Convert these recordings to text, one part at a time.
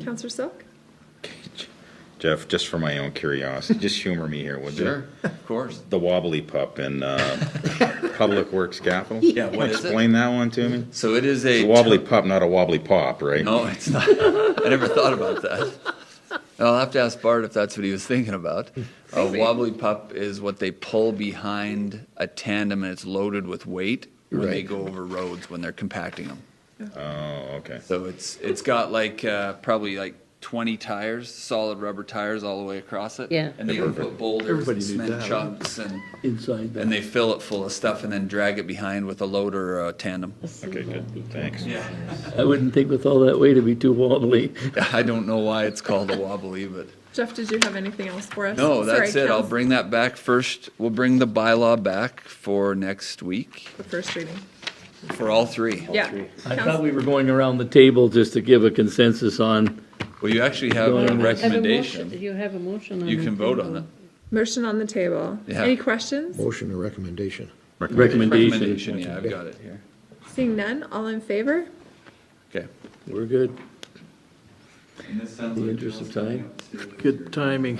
Counselor Silk? Jeff, just for my own curiosity, just humor me here, would you? Of course. The wobbly pup in uh, Public Works Capital? Yeah, what is it? Explain that one to me. So it is It's a. a wobbly pup, not a wobbly pop, right? No, it's not. I never thought about that. I'll have to ask Bart if that's what he was thinking about. A wobbly pup is what they pull behind a tandem and it's loaded with weight when they Right. go over roads when they're compacting them. Oh, okay. So it's it's got like uh, probably like 20 tires, solid rubber tires all the way across it. Yeah. And they can put boulders Everybody and knew cement that. chunks and, Inside and that. they fill it full of stuff and then drag it behind with a loader or a tandem. Okay, good, thanks. Yeah. I wouldn't think with all that weight it'd be too wobbly. I don't know why it's called a wobbly, but. Jeff, did you have anything else for us? No, that's Sorry, it. I'll Couns- bring that back first. We'll bring the bylaw back for next week The first reading. for all three. Yeah. I thought we were going around the table just to give a consensus on, Well, you actually have Well, a I have a Have a motion- recommendation. You have a motion on You can vote on it. Motion on the table. Yeah. Any questions? Motion or recommendation? recommendation. Recommendation, yeah, I've got it here. Seeing none, all in favor? Okay. We're good. In the interest of time. Good timing.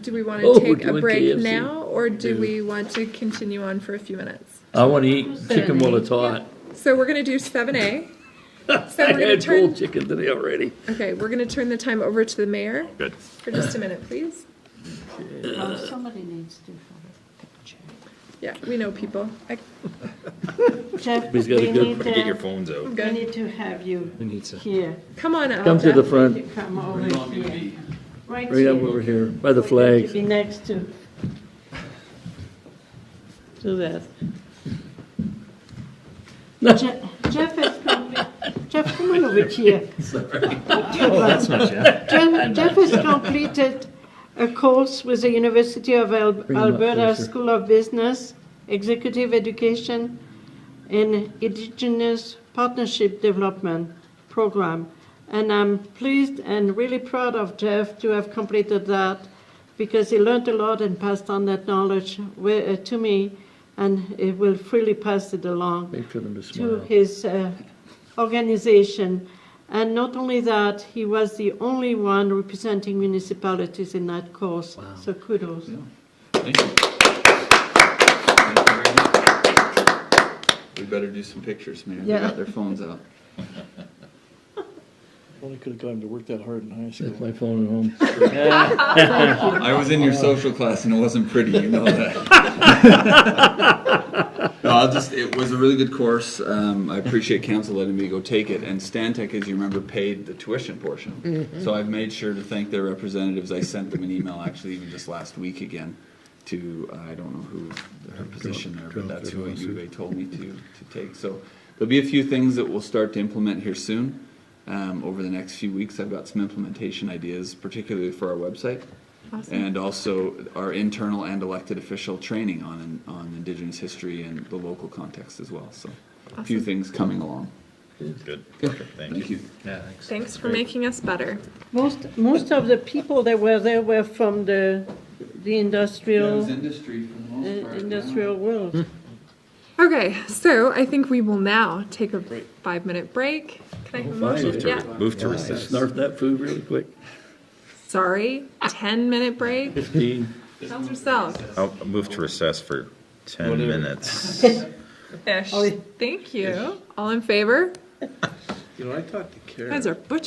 Do we want Oh, to we're take a doing break KFC. now, or do we want to continue on for a few minutes? I want to eat chicken while it's hot. So we're going to do seven A. So I we're going to had cold turn, chicken today already. okay, we're going to turn the time over to the mayor Good. for just a minute, please. Oh, Somebody needs to have a picture. Yeah, we know people. I- Jeff, we He's got a need good- to, Get your phones out. I'm we good. need to have you here. Come on up. Come to the Jeff. front, You come over here. Right right here. up over here, by the You flag. be next to, to that. Je- Jeff has come, Jeff, come on over here. Jeff, Jeff has completed a course with the University of Al- Bring him up Alberta closer. School of Business, Executive Education, and Indigenous Partnership Development Program. And I'm pleased and really proud of Jeff to have completed that because he learned a lot and passed on that knowledge wi- uh, to me, and he will freely pass it along Make for them to to smile. his uh, organization. And not only that, he was the only one representing municipalities in that course. So kudos. Thank you. Thank you very much. We better do some pictures, man. They Yeah. got their phones out. Only could have got him to work that hard in high school. Left my phone at home. I was in your social class and it wasn't pretty, you know that. no, I'll just, it was a really good course. Um, I appreciate council letting me go take it. And Stantec, as you remember, paid the tuition portion. So I've made sure to thank their representatives. I sent them an email actually even just last week again to, uh, I don't know who her position there, but that's who at UVA told me to, to take. So there'll be a few things that we'll start to implement here soon. Um, over the next few weeks, I've got some implementation ideas, particularly for our website and also our internal and elected official training on on Indigenous history and the local context as well. So, a few things coming along. Good, Okay, thank Thank you. you. Thanks for making us better. Most, most of the people that were there were from the, the industrial, industry for the uh, industrial world. Okay, so I think we will now take a five-minute break. Can Oh, I have a motion? Yeah, Move to I recess. snarfed that food really quick. sorry, ten-minute break. Fifteen. Counselor Selk. I'll move to recess for ten minutes. Ish. Thank you. All in favor? You know, I talked to Kara. You guys are butchering.